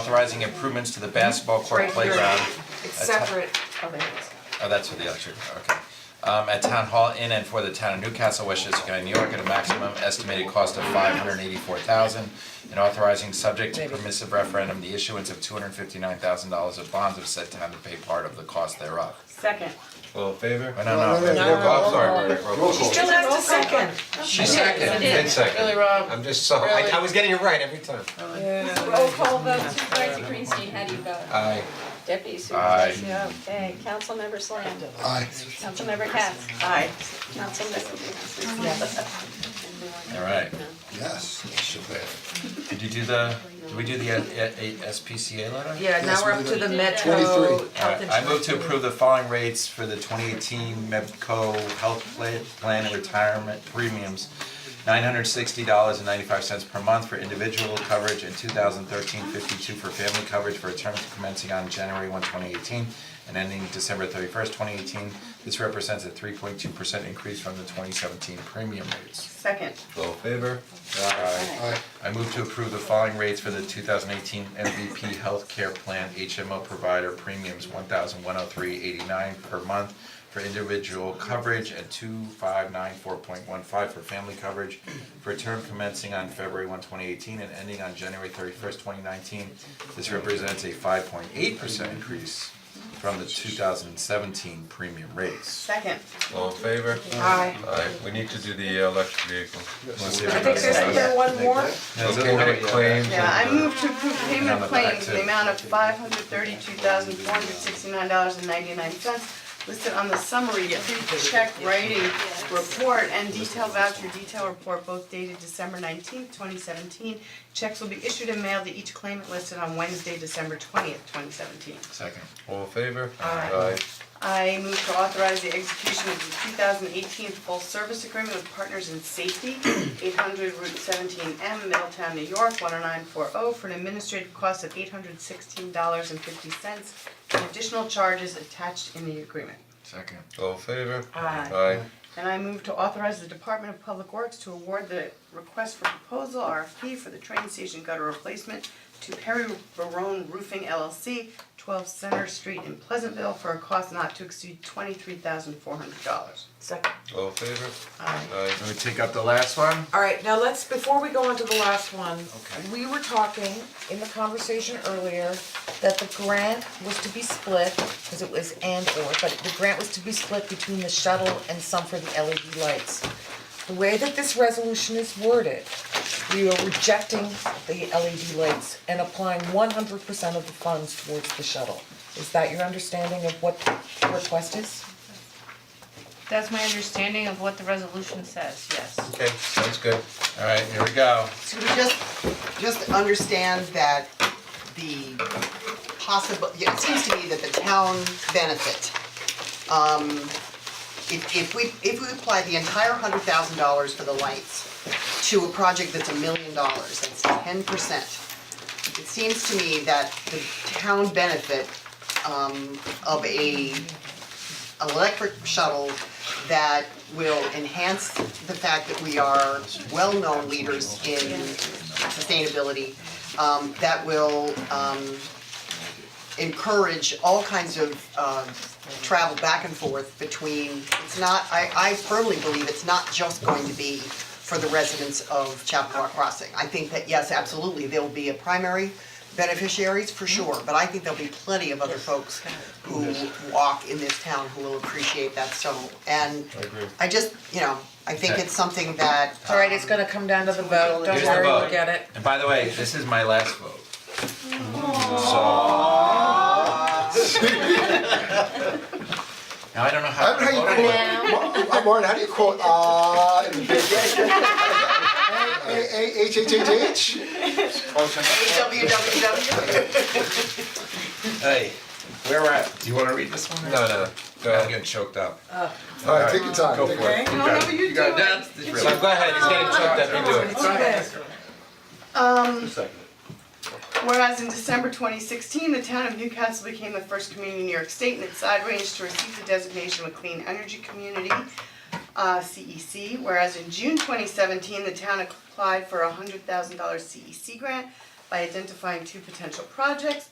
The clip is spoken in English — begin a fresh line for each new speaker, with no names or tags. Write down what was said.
authorizing improvements to the basketball court
Right here.
playground.
It's
at Ta-
separate of it.
Oh, that's for the electric, okay. Um, at Town Hall in and for the town of Newcastle, Westchester County, New York, at a maximum estimated cost of five hundred and eighty-four thousand, and authorizing subject to permissive referendum, the issuance of two hundred and fifty-nine thousand dollars of bonds of said town to pay part of the cost thereof.
Second.
All in favor?
Oh, no, no,
No, no, no,
roll call,
roll
sorry, roll call.
Still has to second.
She seconded, Ted seconded.
Really, Rob?
I'm just so, I, I was getting it right every time.
Roll call vote, Supervisor Greenstein, how do you vote?
Aye.
Deputy
Aye.
Supervisor. Okay, Councilmember Slam.
Aye.
Councilmember Katz.
Aye.
Councilmember.
All right,
Yes.
did you do the, did we do the uh, uh, SPCA letter?
Yeah, now
Yes,
we're up
we
to the
did.
Metro Health
Twenty-three.
Insurance.
Alright, I move to approve the following rates for the twenty eighteen MEPCO Health Pla- Plan and Retirement Premiums. Nine hundred sixty dollars and ninety-five cents per month for individual coverage and 2013-52 for family coverage for a term commencing on January 1, 2018, and ending December thirty-first, twenty eighteen. This represents a three point two percent increase from the twenty seventeen premium rates.
Second.
All in favor?
Aye.
I move to approve the following rates for the two thousand eighteen MVP healthcare plan HMO provider premiums, one thousand one oh three eighty-nine per month for individual coverage and two five nine four point one five for family coverage for a term commencing on February 1, 2018, and ending on January thirty-first, twenty nineteen. This represents a five point eight percent increase from the two thousand seventeen premium rates.
Second.
All in favor?
Aye.
Aye, we need to do the uh, electric vehicle.
Let's see
I
if
think there's
everybody-
either one more.
Yeah, there's a
Okay,
little
no
bit-
claims
Yeah, I
and, uh,
move to approve
And on
payment
the
of
back,
claims in the
too.
amount of five hundred thirty-two thousand four hundred sixty-nine dollars and ninety-nine cents listed on the summary pre-check writing report and detail voucher detail report, both dated December nineteenth, twenty seventeen. Checks will be issued and mailed to each claimant listed on Wednesday, December twentieth, twenty seventeen.
Second.
all in favor?
Aye. I move to authorize the execution of the two thousand eighteen full service agreement with Partners in Safety, eight hundred Route seventeen M, Middletown, New York, one oh nine four oh, for an administrative cost of eight hundred sixteen dollars and fifty cents, and additional charges attached in the agreement.
Second.
All in favor?
Aye. And I move to authorize the Department of Public Works to award the request for proposal RFP for the train station gutter replacement to Perry Barone Roofing LLC, twelve Center Street in Pleasantville for a cost not to exceed twenty-three thousand four hundred dollars.
Second.
All in favor?
Aye.
Aye.
Let me take up the last one.
Alright, now let's, before we go on to the last one,
Okay.
we were talking in the conversation earlier that the grant was to be split, cause it was and or, but the grant was to be split between the shuttle and some for the LED lights. The way that this resolution is worded, we are rejecting the LED lights and applying one hundred percent of the funds towards the shuttle. Is that your understanding of what the request is?
That's my understanding of what the resolution says, yes.
Okay, sounds good.
Alright, here we go.
So we just, just understand that the possible, yeah, it seems to me that the town benefit, um, if, if we, if we apply the entire hundred thousand dollars for the lights to a project that's a million dollars, that's ten percent, it seems to me that the town benefit, um, of a electric shuttle that will enhance the fact that we are well-known leaders in sustainability, um, that will, um, encourage all kinds of, uh, travel back and forth between, it's not, I, I firmly believe it's not just going to be for the residents of Chapua Crossing. I think that, yes, absolutely, there will be a primary beneficiaries for sure, but I think there'll be plenty of other folks who walk in this town who will appreciate that so, and I
agree.
just, you know, I think
Okay.
it's something that,
It's Alright, it's gonna come down to the vote, don't
Here's the
worry, we'll
vote.
get it.
And by the way, this is my last vote. So. Now, I don't know
I
how.
don't know how you quote, Ma- I'm worried, how do you quote, uh, in the big- A, A, H, H, H, H?
um, HWWW.
Hey, where we're at, do you wanna read this one?
No, no, go
I'm
ahead.
getting choked up.
Alright, take your time,
Go
take
for
your-
it.
I don't know what you're
You got,
doing.
that's, this really.
So go ahead, he's getting choked up, you do it.
Okay.
Whereas in December twenty sixteen, the town of Newcastle became the first community in New York State and its side range to receive the designation of a clean energy community, uh, CEC. Whereas in June twenty seventeen, the town applied for a hundred thousand dollar CEC E grant by identifying two potential projects